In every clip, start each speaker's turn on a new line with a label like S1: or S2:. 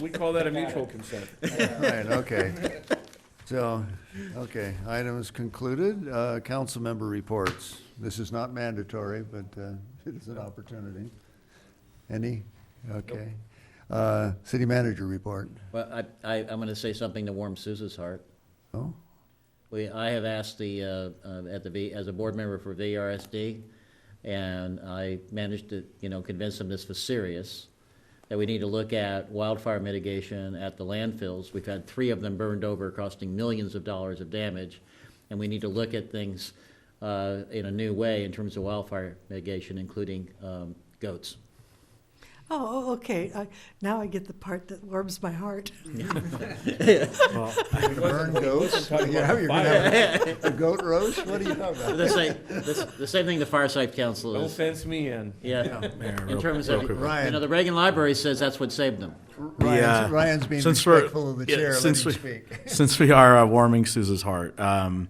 S1: We call that a mutual consent.
S2: Right, okay. So, okay, item is concluded. Uh, Council member reports. This is not mandatory, but uh, it is an opportunity. Any? Okay. Uh, City manager report.
S3: Well, I, I, I'm gonna say something to warm Sousa's heart.
S2: Oh,
S3: We, I have asked the, uh, uh, at the V, as a board member for VRSD, and I managed to, you know, convince them this was serious, that we need to look at wildfire mitigation at the landfills. We've had three of them burned over, costing millions of dollars of damage, and we need to look at things uh, in a new way in terms of wildfire mitigation, including um, goats.
S4: Oh, oh, okay. I, now I get the part that warms my heart.
S2: you're gonna burn goats? Yeah, you're gonna have a goat roast? What are you talking about?
S3: The same, the the same thing the fireside council
S1: Don't
S3: is,
S1: fence me in.
S3: yeah,
S5: Uh,
S3: in terms of, you
S2: Ryan.
S3: know, the Reagan Library says that's what saved them.
S6: uh,
S2: Ryan's- Ryan's being
S6: since we're-
S2: respectful of the
S6: yeah,
S2: chair. Let him
S6: since we-
S2: speak.
S6: Since we are uh, warming Sousa's heart, um,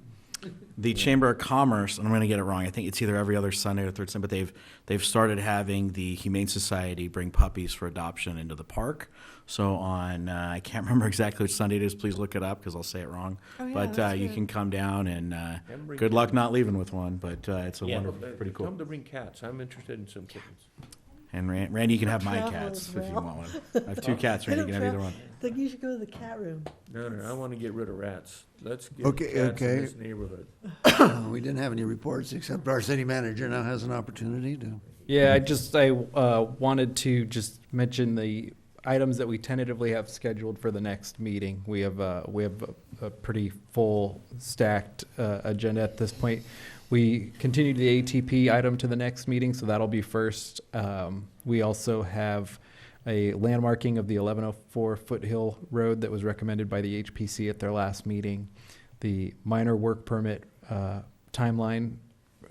S6: the Chamber of Commerce, and I'm going to get it wrong. I think it's either every other Sunday or third Sunday, but they've they've started having the Humane Society bring puppies for adoption into the park. So on, uh, I can't remember exactly which Sunday it is. Please look it up because I'll say it wrong.
S4: Oh, yeah,
S6: but uh,
S4: that's
S6: you
S4: good.
S6: can come down and uh,
S1: And bring
S6: good luck not leaving with one. But uh, it's a
S3: Yeah.
S6: wonderful, pretty cool.
S1: Come to bring cats. I'm interested in some kittens.
S6: And Ran- Randy, you can have my
S4: Travel
S6: cats
S4: as
S6: if you
S4: well.
S6: want one. I have two cats.
S4: I
S6: Randy,
S4: don't
S6: you can have either
S4: travel-
S6: one.
S4: Think you should go to the cat room.
S1: No, no, I want to get rid of rats. Let's get
S2: Okay,
S1: cats
S2: okay.
S1: in this neighborhood.
S2: Oh, We didn't have any reports, except our city manager now has an opportunity to.
S5: Yeah, I just, I uh, wanted to just mention the items that we tentatively have scheduled for the next meeting. We have, uh, we have a- a pretty full stacked uh, agenda at this point. We continue the ATP item to the next meeting, so that'll be first. Um, We also have a landmarking of the 1104 Foothill Road that was recommended by the HPC at their last meeting. The minor work permit uh, timeline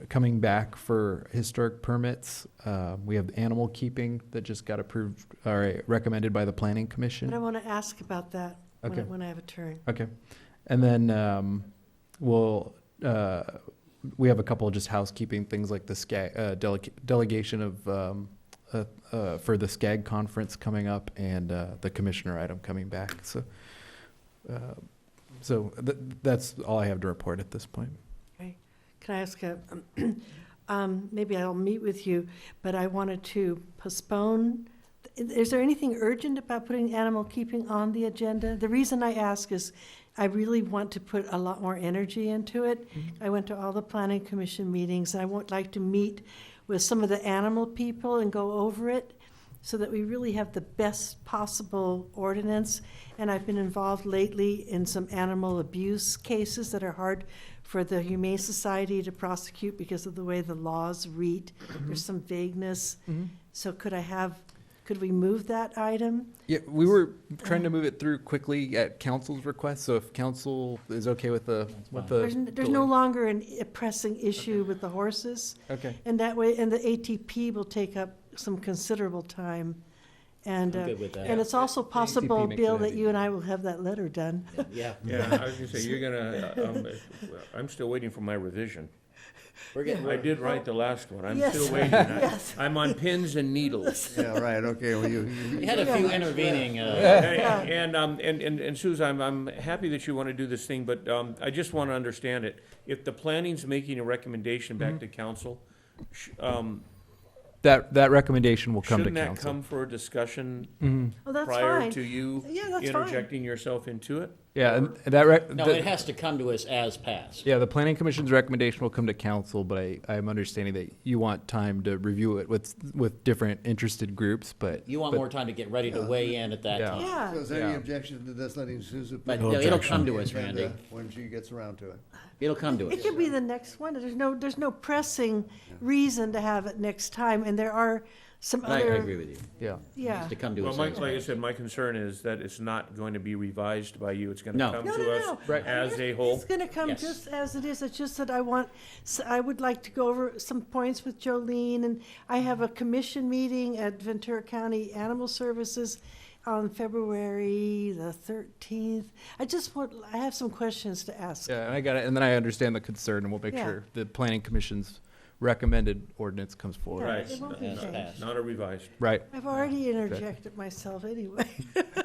S5: coming back for historic permits. Uh, we have animal keeping that just got approved or recommended by the planning
S4: But I
S5: commission.
S4: want to ask about that when, I,
S5: Okay.
S4: when I have a turn.
S5: Okay, and then um, we'll uh, we have a couple of just housekeeping things like the SCAG uh, delega- delegation of um, uh, uh, for the SCAG conference coming up and uh, the commissioner item coming back. So. Uh, so th- that's all I have to report at this point.
S4: Can I ask a? um, maybe I'll meet with you, but I wanted to postpone. Is there anything urgent about putting animal keeping on the agenda? The reason I ask is I really want to put a lot more energy into it. I went to all the planning commission meetings. I would like to meet with some of the animal people and go over it so that we really have the best possible ordinance. And I've been involved lately in some animal abuse cases that are hard for the Humane Society to prosecute because of the way the laws read. There's some vagueness. So could I have, could we move that item?
S5: Yeah, we were trying to move it through quickly at council's request, so if council is okay with the, with the.
S4: There's, n- there's no
S5: delay.
S4: longer an a pressing issue with the horses.
S5: Okay,
S4: And that way, and the ATP will take up some considerable time. And,
S3: I'm
S4: uh,
S3: good with that.
S4: and it's also possible,
S5: makes
S4: Bill,
S5: it
S4: that
S5: easy.
S4: you and I will have that letter done.
S3: Yeah,
S1: Yeah, I was gonna say, you're gonna, um, I'm still waiting for my revision.
S3: we're getting,
S1: I did write the last one. I'm
S4: Yes.
S1: still waiting. I- I'm on pins and needles.
S2: Yeah, right, okay, well, you, you-
S3: we had a few intervening, uh,
S1: And, and, um, and, and and Suze, I'm, I'm happy that you want to do this thing, but, um, I just want to understand it. If the planning's making a recommendation back to council, sh- um,
S5: that, that recommendation will come to
S1: shouldn't that
S5: council.
S1: come for a discussion
S4: Oh, that's
S1: prior
S4: fine.
S1: to you
S4: Yeah, that's fine.
S1: interjecting yourself into it?
S5: Yeah, and that, rec-
S3: no,
S5: the-
S3: it has to come to us as passed.
S5: yeah, the planning commission's recommendation will come to council, but I, I'm understanding that you want time to review it with, with different interested groups, but.
S3: You want
S5: but-
S3: more time to get ready to weigh in at that
S5: Yeah.
S3: time.
S2: So
S4: Yeah,
S2: is there any
S5: Yeah.
S2: objection to this letting Susan?
S3: But
S2: put
S3: no, it'll
S2: objection
S3: come
S2: on
S3: to
S2: the
S3: us,
S2: agenda
S3: Randy.
S2: When she gets around to it.
S3: It'll come to
S4: it
S3: us.
S4: could be the next one. There's no, there's no pressing reason to have it next time, and there are some
S3: I, I
S4: other.
S3: agree with you.
S5: Yeah.
S4: Yeah.
S3: It's to come to
S1: Well,
S3: us.
S1: Mike,
S3: as
S1: like I
S3: passed.
S1: said, my concern is that it's not going to be revised by you. It's gonna
S3: No.
S1: come
S4: No, no,
S1: to us
S4: no. Right.
S1: as a whole.
S4: It's gonna come
S3: Yes.
S4: just as it is, it's just that I want, so I would like to go over some points with Jolene, and I have a commission meeting at Ventura County Animal Services on February the thirteenth. I just want, I have some questions to ask.
S5: Yeah, and I got it, and then I understand the concern, and we'll make
S4: Yeah.
S5: sure the planning commission's recommended ordinance comes forward.
S1: Right. uh,
S4: It won't be
S3: Yes,
S4: changed.
S3: passed.
S1: Not a revised.
S5: Right.
S4: I've already interjected myself anyway.